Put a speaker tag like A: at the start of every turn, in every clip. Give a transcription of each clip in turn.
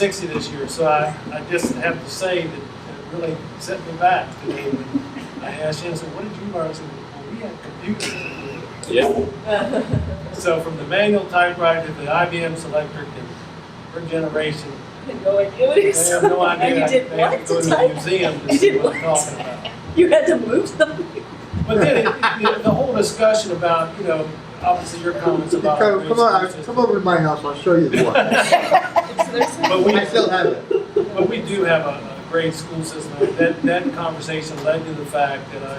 A: sixty this year, so I, I just have to say that it really set me back today. when I asked Shannon, I said, what did you learn? I said, well, we had computers.
B: Yeah.
A: So from the manual typewriter to the IBM Selectric and her generation,
C: Had no idea what
A: they
C: he was.
A: have no idea.
C: And you did
A: They have
C: what
A: to go
C: to
A: to the
C: type?
A: museum to
C: You
A: see
C: did
A: what I'm
C: what?
A: talking about.
C: You had to move them?
A: But then it, it, the whole discussion about, you know, obviously your comments
D: Come
A: about.
D: come on, come over to my house, I'll show you the one.
A: But we,
D: I still have it.
A: but we do have a, a great school system. And That, that conversation led to the fact that I,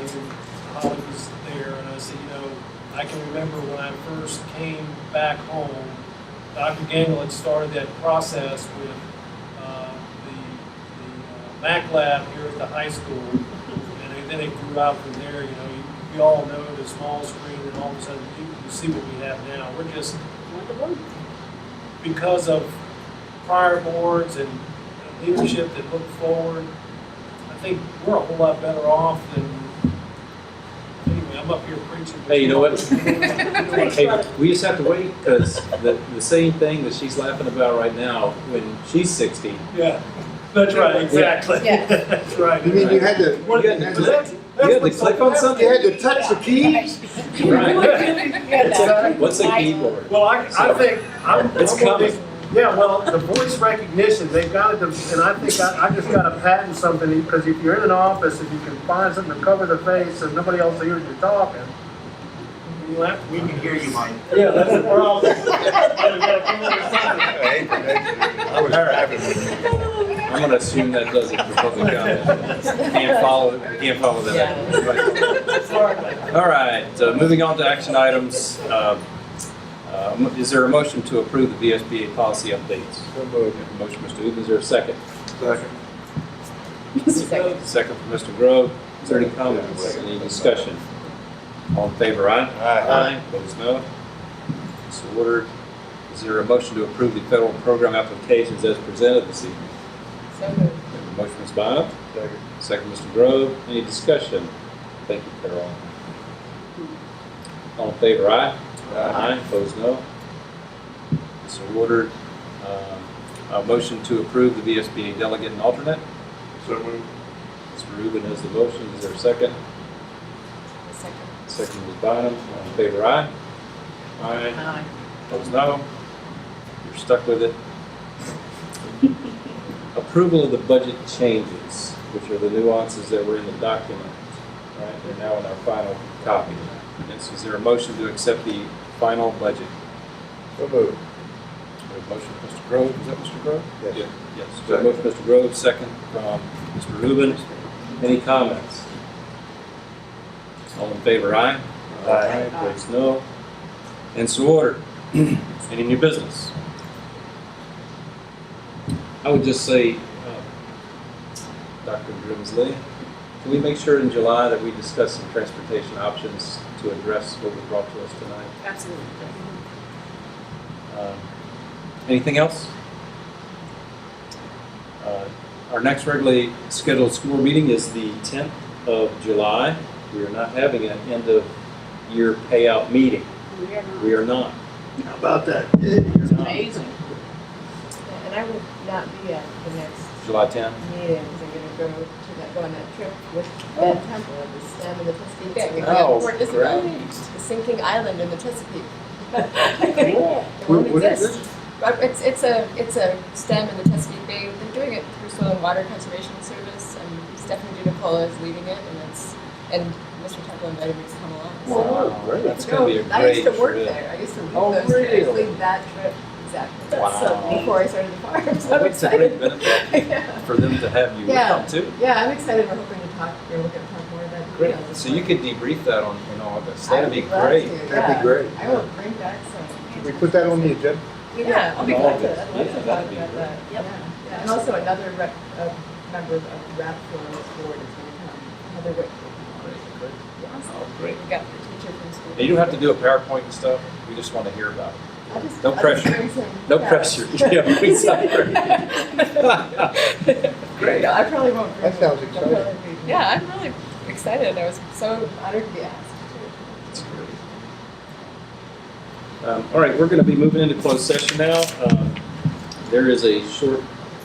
A: Holly was there and I said, you know, I can remember when I first came back home, Dr. Gangle had started that process with, uh, the, the uh, Mac lab here at the high school. And then it grew out from there, you know, you, you all know the small screen and all of a sudden you, you see what we have now. We're just because of prior boards and leadership that look forward, I think we're a whole lot better off than, anyway, I'm up here preaching.
B: Hey, you know what?
A: Hey,
B: Hey, we just have to wait because the, the same thing that she's laughing about right now, when she's sixty,
A: Yeah, that's right, exactly.
E: Yeah.
A: That's right.
D: You mean you had to,
A: What-
B: You had to
A: that's-
B: click-
A: that's
B: you had to
A: what's
B: click on
A: happening.
B: something?
D: you had to touch the key?
A: It's like-
B: what's the keyboard?
A: Well, I, I think, I'm.
B: It's
A: I'm one of these-
B: coming.
F: Yeah, well, the voice recognition, they've got to, and I think I, I just got to patent something, because if you're in an office, if you can find something to cover the face so nobody else hears you talking.
A: you have-
G: We can hear you, Mike.
A: Yeah, that's the problem.
G: I was driving with
B: I'm gonna assume that does it for public comment. Can't follow, can't follow that. All right, uh, moving on to action items. Uh, uh, mo- Is there a motion to approve the VSBA policy updates? Motion, Mr. Uben, is there a second? Second from Mr. Grove. Is there any comments, any discussion? All in favor, aye?
G: Aye.
B: Opposed, no? So ordered. Is there a motion to approve the federal program applications as presented this evening? Motion is Bob. Second. Mr. Grove. Any discussion? Thank you, Carol. All in favor, aye?
G: Uh,
B: Aye. Opposed, no? So ordered. Um, A motion to approve the VSBA delegate and alternate?
G: So moved.
B: Mr. Rubin has the motion. Is there a second? Second is Bynum. All in favor, aye? Aye. Opposed, no. You're stuck with it. Approval of the budget changes, which are the nuances that were in the document. All right, they're now in our final copy. Yes, is there a motion to accept the final budget?
G: So moved.
B: We have a motion, from Mr. Grove, is that Mr. Grove?
G: Yes.
B: Yeah, Yes, we have a motion, Mr. Grove, second from Mr. Rubin. Any comments? All in favor, aye?
G: Aye.
B: Opposed, no. And so ordered. Any new business? I would just say, uh, Dr. Grimsley, can we make sure in July that we discuss some transportation options to address what was brought to us tonight?
C: Absolutely.
B: Um, Anything else? Uh, Our next regularly scheduled school meeting is the 10th of July. We are not having an end-of-year payout meeting.
C: We are not.
B: We are not.
D: How about that?
B: It's not.
E: Amazing. And I will not be at the next
B: July 10th.
E: meeting, 'cause I'm gonna go to that, go on that trip with
C: Oh.
E: Ben Temple and the STEM and the Chesapeake. Bay. We're
B: Oh,
E: going to Port Isabel,
B: great.
E: the sinking island in the Chesapeake. It
D: What-
E: won't
D: what is
E: exist. But it's, it's a, it's a STEM in the Chesapeake Bay, they're doing it through Soil and Water Conservation Service, and Stephanie DiNicola is leading it, and it's, and Mr. Temple invited me to come along. so-
B: Wow, That's going to be a
E: I used
B: great
E: to work
B: trip.
E: there. I used to lead
B: Oh,
E: those trips,
B: really?
E: lead that trip exactly.
B: That's
E: So,
B: something.
E: before I started the farm. So
B: Well,
E: I'm
B: It's a great
E: excited.
B: benefit
E: yeah.
B: for them to have you with
E: Yeah.
B: them too.
E: yeah, I'm excited. We're hoping to talk. We're looking to talk more about the
B: Great.
E: videos this
B: So you
E: month.
B: could debrief that on, in August.
E: I
B: That'd
E: would
B: be
E: love
B: great.
E: to,
D: That'd
E: yeah.
D: be great.
E: I will bring back some.
D: Can we put that on the agenda?
E: Yeah, I'll be glad to. I'd love
B: Yeah,
E: to talk
B: that'd be
E: about
B: great.
E: that. Yeah. yeah. And also another rep, uh, member of the rap for board is going to come. Heather Whitfield. Yeah,
B: Oh, great.
E: We got the teacher from school.
B: And you don't have to do a PowerPoint and stuff. We just want to hear about it.
E: I'll just-
B: no
E: I'll just
B: pressure.
E: bring some-
B: No
E: yeah.
B: pressure. Yeah, please, sorry. Great.
E: Yeah, I probably won't. bring
D: That sounds
E: it.
D: exciting.
E: I'll probably be- Yeah, I'm really excited. I was so honored to be asked.
B: Um, All right, we're going to be moving into closed session now. Um, Uh, There is a short